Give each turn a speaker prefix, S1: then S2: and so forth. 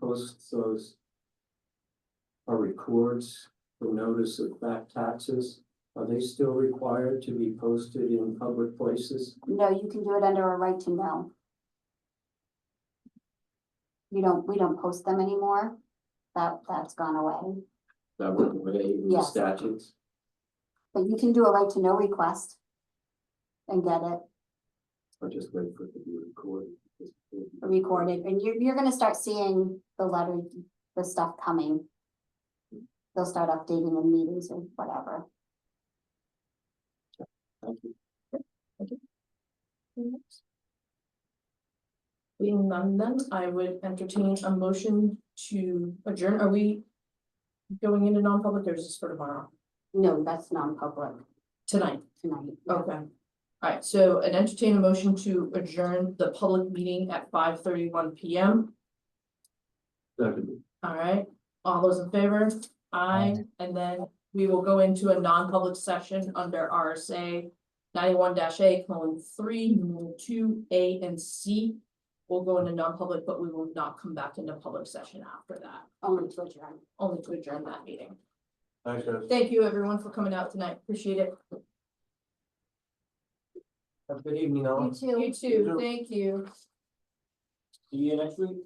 S1: posts those. Or records the notice of back taxes, are they still required to be posted in public places?
S2: No, you can do it under a right to know. You don't, we don't post them anymore. That, that's gone away.
S1: That went away in the
S2: Yes.
S1: statutes?
S2: But you can do a right to know request. And get it
S1: I just wait for it to be recorded.
S2: recorded, and you're, you're gonna start seeing the letter, the stuff coming. They'll start updating the meetings or whatever.
S1: Thank you.
S3: Being none then, I would entertain a motion to adjourn, are we? Going into non-public or is this for tomorrow,
S2: No, that's non-public
S3: tonight,
S2: tonight.
S3: okay. Alright, so an entertain a motion to adjourn the public meeting at five thirty-one P M,
S1: Second.
S3: alright, all those in favor? Aye, and then we will go into a non-public session under R S A. Ninety-one dash A, colon, three, numeral two, A and C. We'll go into non-public, but we will not come back into public session after that.
S2: Only to adjourn.
S3: only to adjourn that meeting.
S1: Thanks, guys.
S3: Thank you, everyone, for coming out tonight. Appreciate it.
S1: Have a good evening, all.
S2: You too.
S3: You too. Thank you.
S1: See you next week.